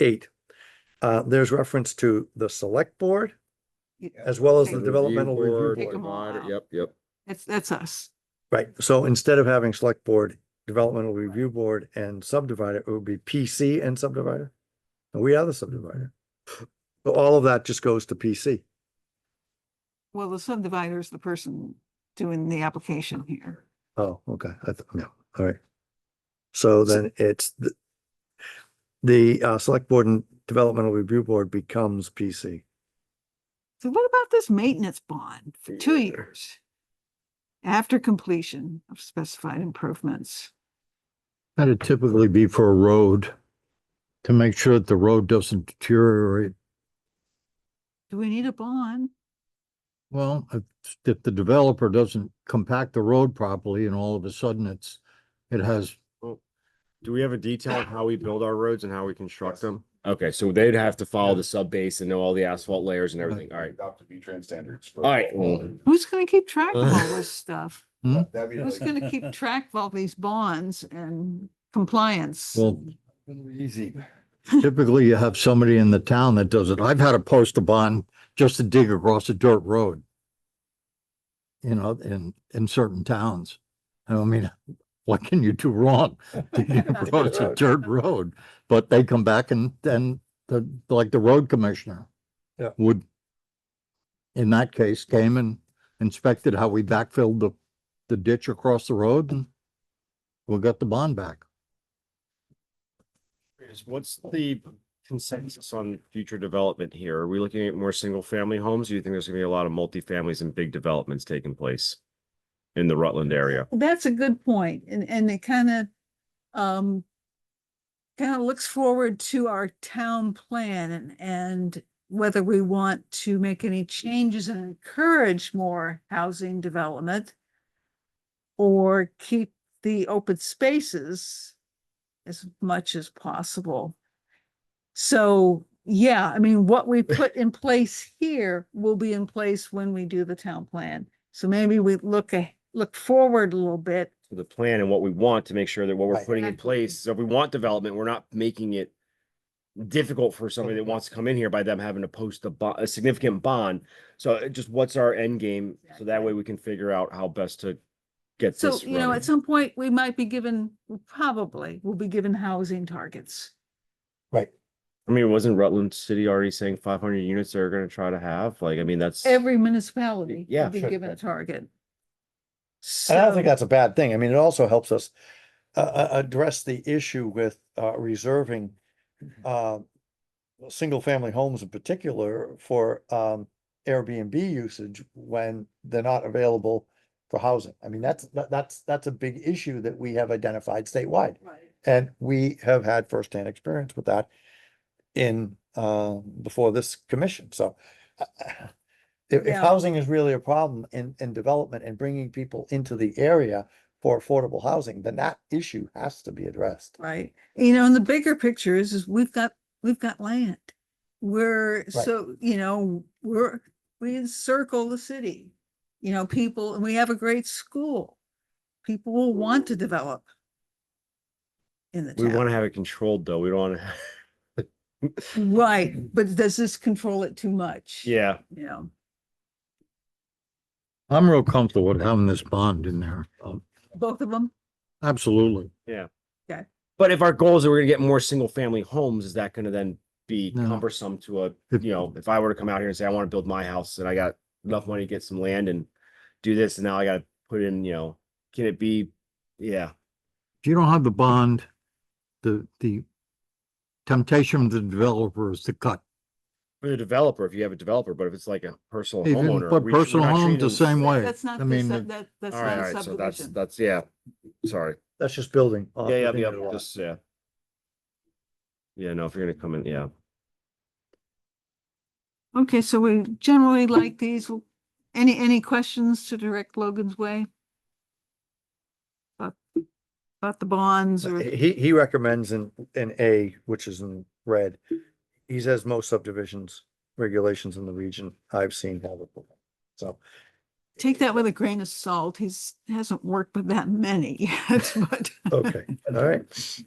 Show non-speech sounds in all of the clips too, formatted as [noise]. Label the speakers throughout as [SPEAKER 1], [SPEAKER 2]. [SPEAKER 1] eight, uh, there's reference to the select board
[SPEAKER 2] Yeah.
[SPEAKER 1] as well as
[SPEAKER 2] Right.
[SPEAKER 1] the
[SPEAKER 2] Review
[SPEAKER 1] developmental review
[SPEAKER 2] Take
[SPEAKER 1] board.
[SPEAKER 2] 'em all
[SPEAKER 3] Moderator,
[SPEAKER 2] out.
[SPEAKER 3] Yep, yep.
[SPEAKER 2] That's, that's us.
[SPEAKER 1] Right, so instead of having select board, developmental review board and subdivider, it would be PC and subdivider. And we are the subdivider. So all of that just goes to PC.
[SPEAKER 2] Well, the subdivider is the person doing the application here.
[SPEAKER 1] Oh, okay, I, th- no, all right. So then it's the, the, uh, select board and developmental review board becomes PC.
[SPEAKER 2] So what about this maintenance bond for two years? After completion of specified improvements.
[SPEAKER 4] That'd typically be for a road, to make sure that the road doesn't deteriorate.
[SPEAKER 2] Do we need a bond?
[SPEAKER 4] Well, if, if the developer doesn't compact the road properly and all of a sudden it's, it has,
[SPEAKER 5] Do we have a detail of how we build our roads and how we construct them?
[SPEAKER 3] Okay, so they'd have to follow the sub base and know all the asphalt layers and everything. All right.
[SPEAKER 6] Adopt the V-Trans standards. for-
[SPEAKER 3] All right, well-
[SPEAKER 1] Mm-hmm.
[SPEAKER 2] Who's gonna keep track of all this stuff?
[SPEAKER 6] That'd be
[SPEAKER 2] Who's
[SPEAKER 6] like-
[SPEAKER 2] gonna keep track of all these bonds and compliance?
[SPEAKER 4] well,
[SPEAKER 6] Easy.
[SPEAKER 4] typically you have somebody in the town that does it. I've had to post a bond just to dig across a dirt road. You know, in, in certain towns. I don't mean, [laughs] what can you do wrong? Dig across a dirt road, but they come back and then the, like the road commissioner.
[SPEAKER 1] Yeah.
[SPEAKER 4] Would. In that case, came and inspected how we backfilled the, the ditch across the road and. We got the bond back.
[SPEAKER 5] What's the consensus on future development here? Are we looking at more single family homes? Do you think there's gonna be a lot of multifamilies and big developments taking place? In the Rutland area?
[SPEAKER 2] That's a good point, and, and it kind of, um, kind of looks forward to our town plan and, and whether we want to make any changes and encourage more housing development or keep the open spaces as much as possible. So, yeah, I mean, what we put in place here will be in place when we do the town plan. So maybe we look, a- look forward a little bit.
[SPEAKER 5] to the plan and what we want to make sure that what we're
[SPEAKER 1] Right.
[SPEAKER 5] putting in
[SPEAKER 2] Exactly.
[SPEAKER 5] place, so if we want development, we're not making it difficult for somebody that wants to come in here by them having to post a bond, a significant bond. So uh, just what's our end game? So that way we can figure out how best to get
[SPEAKER 2] So,
[SPEAKER 5] this
[SPEAKER 2] you know, at
[SPEAKER 5] running.
[SPEAKER 2] some point, we might be given, we probably will be given housing targets.
[SPEAKER 5] I mean, wasn't Rutland City already saying five hundred units they're gonna try to have? Like, I mean, that's.
[SPEAKER 2] Every municipality will
[SPEAKER 5] Yeah,
[SPEAKER 2] be
[SPEAKER 5] sure.
[SPEAKER 2] given a target.
[SPEAKER 1] And I don't think
[SPEAKER 2] So-
[SPEAKER 1] that's a bad thing. I mean, it also helps us uh, uh, address the issue with uh, reserving uh, single-family homes in particular for um, Airbnb usage when they're not available for housing. I mean, that's, that- that's, that's a big issue that we have identified statewide. And we have had firsthand experience with that in, uh, before this commission, so. uh, If, if
[SPEAKER 2] Yeah.
[SPEAKER 1] housing is really a problem in, in development and bringing people into the area for affordable housing, then that issue has to be addressed.
[SPEAKER 2] Right, you know, and the bigger picture is, is we've got, we've got land. We're, so, you know, we're, we encircle the city. You know, people, and we have a great school. People will want to develop. In the
[SPEAKER 5] We wanna
[SPEAKER 2] town,
[SPEAKER 5] have it controlled though. We don't wanna, [laughs]
[SPEAKER 2] right, but does this control it too much?
[SPEAKER 5] yeah.
[SPEAKER 2] You know,
[SPEAKER 4] I'm real comfortable with having this bond in there. Um,
[SPEAKER 2] both of them,
[SPEAKER 4] Absolutely.
[SPEAKER 5] But if our goal is that we're gonna get more single family homes, is that gonna then be
[SPEAKER 4] No.
[SPEAKER 5] cumbersome to a,
[SPEAKER 4] If-
[SPEAKER 5] you know, if I were to come out here and say, I wanna build my house and I got enough money to get some land and do this, and now I gotta put in, you know, can it be, yeah.
[SPEAKER 4] If you don't have the bond, the, the temptation of the developer is to cut.
[SPEAKER 5] For the developer, if you have a developer, but if it's like a personal
[SPEAKER 4] Even,
[SPEAKER 5] homeowner.
[SPEAKER 4] but
[SPEAKER 5] we should- we're
[SPEAKER 4] personal
[SPEAKER 5] not
[SPEAKER 4] homes
[SPEAKER 5] treating
[SPEAKER 4] the
[SPEAKER 5] them-
[SPEAKER 4] same way.
[SPEAKER 2] that's not,
[SPEAKER 4] I
[SPEAKER 2] the
[SPEAKER 4] mean,
[SPEAKER 2] sub-
[SPEAKER 4] the-
[SPEAKER 2] that, that's
[SPEAKER 5] All right, all
[SPEAKER 2] not
[SPEAKER 5] right, so that's,
[SPEAKER 2] subdivision.
[SPEAKER 5] that's, yeah, sorry.
[SPEAKER 1] That's just building.
[SPEAKER 4] Uh,
[SPEAKER 1] on-
[SPEAKER 5] Yeah, yeah,
[SPEAKER 1] within
[SPEAKER 5] yeah,
[SPEAKER 1] the lot.
[SPEAKER 5] just, yeah. Yeah, no, if you're gonna come in, yeah.
[SPEAKER 2] Okay, so we generally like these. W- Any, any questions to direct Logan's way? About, about the bonds or,
[SPEAKER 1] He, he recommends in, in A, which is in red, he says most subdivisions, regulations in the region I've seen have it. So,
[SPEAKER 2] take that with a grain of salt. He's, hasn't worked with that many yet, [laughs] but.
[SPEAKER 5] Oh,
[SPEAKER 1] okay, all right.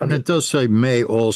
[SPEAKER 4] And it does say may also.